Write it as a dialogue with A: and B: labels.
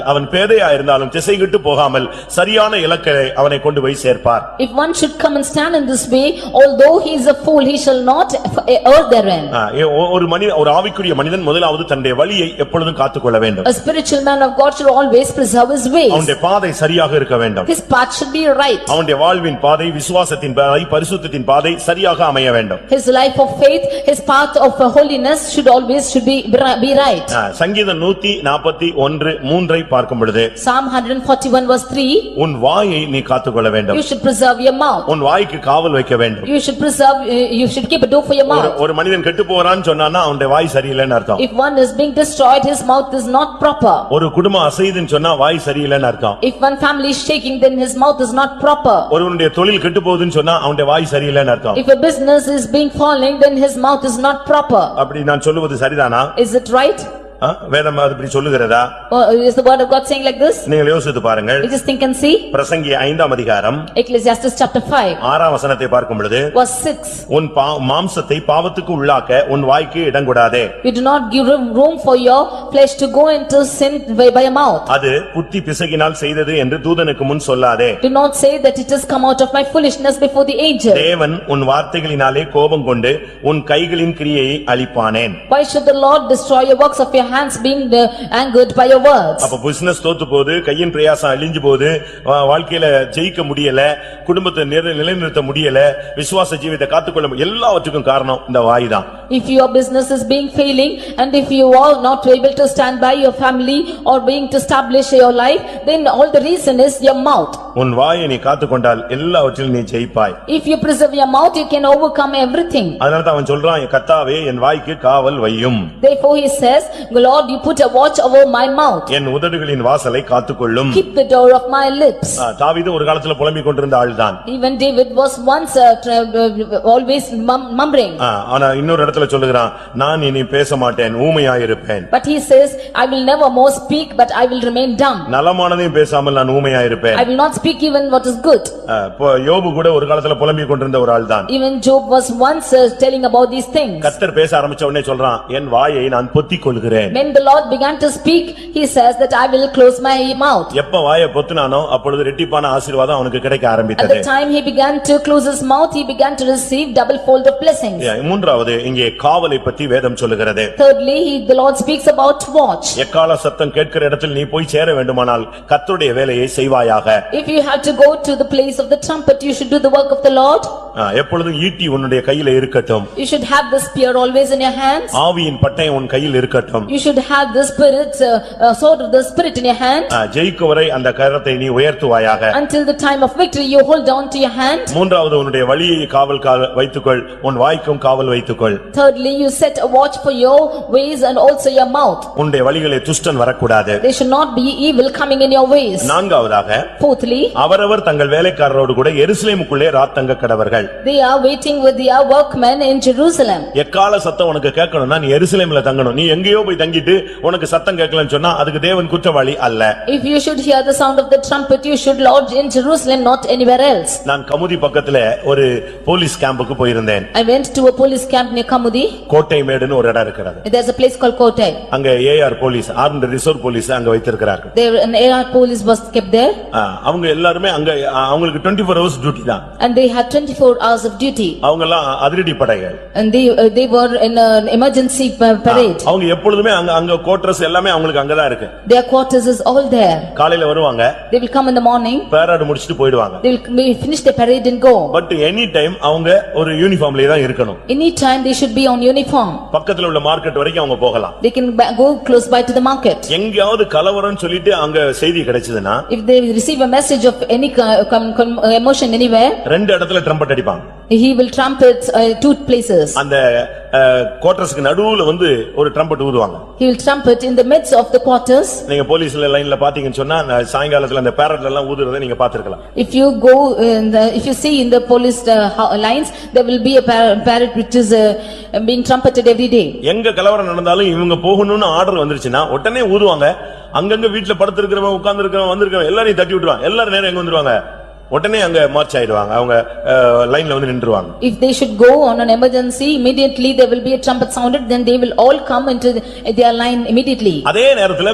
A: அவன் பேதையா இருந்தாலும் திசைகிட்டு போகாமல் சரியான இலக்கை அவனை கொண்டு போய் சேர்ப்பார்
B: If one should come and stand in this way, although he is a fool, he shall not err therein.
A: ஆ, ஏ- ஒ- ஒரு மனிதன் ஒரு ஆவிக்குரிய மனிதன் முதலாவது தன்னுடைய வழியை எப்பொழுதும் காத்துக்கொள்ள வேண்டும்
B: A spiritual man of God should always preserve his ways.
A: அவனுடைய பாதை சரியாக இருக்க வேண்டும்
B: His path should be right.
A: அவனுடைய வாழ்வின் பாதை விசுவாசத்தின் பாதை பரிசுத்தத்தின் பாதை சரியாக அமைய வேண்டும்
B: His life of faith, his path of holiness should always should be be right.
A: ஆ, சங்கீதம் நூத்தி நாற்பத்தி ஒன்று மூன்றை பார்க்கும் பொழுது
B: Psalm 141 verse 3,
A: உன் வாயை நீ காத்துக்கொள்ள வேண்டும்
B: you should preserve your mouth.
A: உன் வாய்க்கு காவல் வைக்க வேண்டும்
B: You should preserve, uh, you should keep a door for your
A: ஒரு-
B: mouth.
A: ஒரு மனிதன் கெட்டு போறான்னு சொன்னான்னா அவனுடைய வாய் சரியில்லைன்னு அர்த்தம்
B: If one is being destroyed, his mouth is not proper.
A: ஒரு குடும்பம் அசைதுன்னு சொன்னா வாய் சரியில்லைன்னு அர்த்தம்
B: If one family is shaking, then his mouth is not proper.
A: ஒருவனுடைய தொழில் கெட்டு போகுதுன்னு சொன்னா அவனுடைய வாய் சரியில்லைன்னு அர்த்தம்
B: If a business is being falling, then his mouth is not proper.
A: அப்படி நான் சொல்லுவது சரிதானா
B: Is it right?
A: ஆ? வேதம் அது இப்படி சொல்லுகிறதா
B: Or is the word of God saying like this?
A: நீங்கள் யோசித்து பாருங்கள்
B: We just think and see.
A: பிரசங்கி ஐந்தாம் அதிகாரம்
B: Ecclesiastes chapter 5
A: ஆறாம் வசனத்தை பார்க்கும் பொழுது
B: verse 6,
A: உன் பா- மாம்சத்தை பாவத்துக்கு உள்ளாக்க உன் வாய்க்கு இடங்கூடாதே
B: you do not give room room for your flesh to go into sin by by your mouth.
A: அது புத்தி பிசகினால் செய்தது என்று தூதனுக்கு முன் சொல்லாதே
B: Do not say that it has come out of my foolishness before the angel.
A: தேவன் உன் வார்த்தைகளினாலே கோபம் கொண்டு உன் கைகளின் கிரியையை அழிப்பானேன்
B: Why should the Lord destroy your works of your hands being uh, angered by your words?
A: அப்ப பிசினஸ் தோத்து போகுது கையின் பிரயாசம் அழிஞ்சு போகுது வா- வாழ்க்கையில ஜெயிக்க முடியல குடும்பத்தை நிர- நிலைநிறுத்த முடியல விசுவாச ஜீவியத்தை காத்துக்கொள்ள முடியல. எல்லாவற்றுக்கும் காரணம் இந்த வாய்தான்
B: If your business is being failing and if you are not able to stand by your family or being to establish your life, then all the reason is your mouth.
A: உன் வாயை நீ காத்துக்கொண்டால் எல்லாவற்றிலும் நீ ஜெயிப்பாய்
B: If you preserve your mouth, you can overcome everything.
A: அதனாலதான் அவன் சொல்றான் கத்தாவே என் வாய்க்கு காவல் வையும்
B: Therefore he says, "Lord, you put a watch over my mouth,
A: என் உதடுகளின் வாசலை காத்துக்கொள்ளும்
B: keep the door of my lips."
A: ஆ, தாவீது ஒரு காலத்துல புலம்பிக் கொண்டிருந்த ஆள்தான்
B: Even David was once uh, tra- uh, always mum- mumbling,
A: ஆ, ஆனா இன்னொரு இடத்துல சொல்லுகிறான் நான் இனி பேச மாட்டேன் ஊமையாயிருப்பேன்
B: but he says, "I will never more speak, but I will remain dumb.
A: நலமானதையும் பேசாமல் நான் ஊமையாயிருப்பேன்
B: I will not speak even what is good."
A: ஆ, இப்போ யோபு கூட ஒரு காலத்துல புலம்பிக் கொண்டிருந்த ஒரு ஆள்தான்
B: Even Job was once uh, telling about these things.
A: கத்தர் பேச ஆரம்பிச்ச உடனே சொல்றான் என் வாயை நான் பொத்திக் கொள்கிறேன்
B: When the Lord began to speak, he says that, "I will close my mouth."
A: எப்ப வாயை பொத்துனானோ அப்பொழுது ரெட்டிப்பான ஆசீர்வாதம் அவனுக்கு கிடைக்க
B: At
A: ஆரம்பித்தது
B: the time he began to close his mouth, he began to receive double fold of blessings.
A: ஏ, மூன்றாவது இங்கே காவலை பத்தி வேதம் சொல்லுகிறது
B: Thirdly, he- the Lord speaks about watch.
A: எக்கால சத்தம் கேட்கிற இடத்தில் நீ போய் சேர வேண்டுமானால் கத்தருடைய வேலையை செய்வாயாக
B: If you have to go to the place of the trumpet, you should do the work of the Lord.
A: ஆ, எப்பொழுதும் ஈட்டி உன்னுடைய கையில இருக்கட்டும்
B: You should have the spear always in your hands.
A: ஆவியின் பட்டயம் உன் கையில் இருக்கட்டும்
B: You should have the spirit, uh, uh, sword of the spirit in your hand.
A: ஆ, ஜெயிக்கும் வரை அந்த கரத்தை நீ உயர்த்துவாயாக
B: Until the time of victory, you hold on to your hand.
A: மூன்றாவது உன்னுடைய வழியை காவல் கா- வைத்துக்கொள் உன் வாய்க்கும் காவல் வைத்துக்கொள்
B: Thirdly, you set a watch for your ways and also your mouth.
A: உன்னுடைய வழிகளை துஷ்டன் வரக்கூடாது
B: There should not be evil coming in your ways.
A: நான்காவதாக
B: Fourthly,
A: அவரவர் தங்கள் வேலைக்காரரோடு கூட எருசலேமுக்குள்ளே ராத்தங்க கடவர்கள்
B: they are waiting with their workmen in Jerusalem.
A: எக்கால சத்தம் உனக்கு கேட்கணும்னா நீ எருசலேம்ல தங்கணும் நீ எங்கேயோ போய் தங்கிட்டு உனக்கு சத்தம் கேட்கலன்னு சொன்னா அதுக்கு தேவன் குற்றவாளி அல்ல
B: If you should hear the sound of the trumpet, you should lodge in Jerusalem, not anywhere else.
A: நான் கமுதி பக்கத்துல ஒரு போலீஸ் கேம்புக்கு போயிருந்தேன்
B: I went to a police camp near Kamudi.
A: கோட்டை மேடுன்னு ஒரு இடம் இருக்கிறது
B: There's a place called Kotai.
A: அங்க AR police armed reserve police அங்க வைத்திருக்கிறார்கள்
B: There an AR police was kept there
A: ஆ, அவங்க எல்லாருமே அங்க ஆ, அவங்களுக்கு 24 ஃபோர் ஹவர்ஸ் டியூட்டி தான்
B: and they had twenty-four hours of duty
A: அவங்க எல்லாம் அதிரடி படைகள்
B: and they uh, they were in an emergency pa- parade.
A: அவங்க எப்பொழுதுமே அங்க அங்க கோட்ரஸ் எல்லாமே அவங்களுக்கு அங்கதான் இருக்கு
B: Their quarters is all there.
A: காலையில வருவாங்க
B: They will come in the morning,
A: பேராடு முடிச்சிட்டு போயிடுவாங்க
B: they will may finish the parade and go.
A: But any time அவங்க ஒரு யூனிஃபார்ம்லயே தான் இருக்கணும்
B: Anytime they should be on uniform.
A: பக்கத்துல உள்ள மார்க்கெட் வரைக்கும் அவங்க போகலாம்
B: They can ba- go close by to the market.
A: எங்கேயாவது கலவரம்னு சொல்லிட்டு அங்க செய்தி கிடைச்சதுன்னா
B: If they receive a message of any co- com- com- uh, emotion anywhere,
A: ரெண்டு இடத்துல ட்ரம்பட் அடிப்பாங்க
B: he will trumpet uh, two places.
A: அந்த கோட்டர்ஸ்க்கு நடுவுல வந்து ஒரு ட்ரம்பட் ஊதுவாங்க
B: He will trumpet in the midst of the quarters.
A: நீங்க போலீஸ்ல லைன்ல பாத்தீங்கன்னு சொன்னா அந்த சாயங்காலத்துல அந்த பேரட்ல எல்லாம் ஊதுறதை நீங்க பாத்துருக்கலாம்
B: If you go, in the- if you see in the police uh, ho- lines, there will be a par- parrot which is uh, being trumpeted every day.
A: எங்க கலவரம் நடந்தாலும் இவங்க போகணும்னு ஆர்டர் வந்துருச்சுன்னா உடனே ஊதுவாங்க அங்கங்க வீட்டுல படுத்திருக்கிறவன் உட்கார்ந்திருக்கிறவன் வந்திருக்கிறவன் எல்லாரையும் தட்டி விட்டுருவாங்க எல்லாரும் நேரம் எங்க வந்துருவாங்க உடனே அங்க மார்ச் ஆயிடுவாங்க அவங்க லைன்ல வந்து நின்றுவாங்க
B: If they should go on an emergency, immediately there will be a trumpet sounded, then they will all come into the- their line immediately.
A: அதே நேரத்துல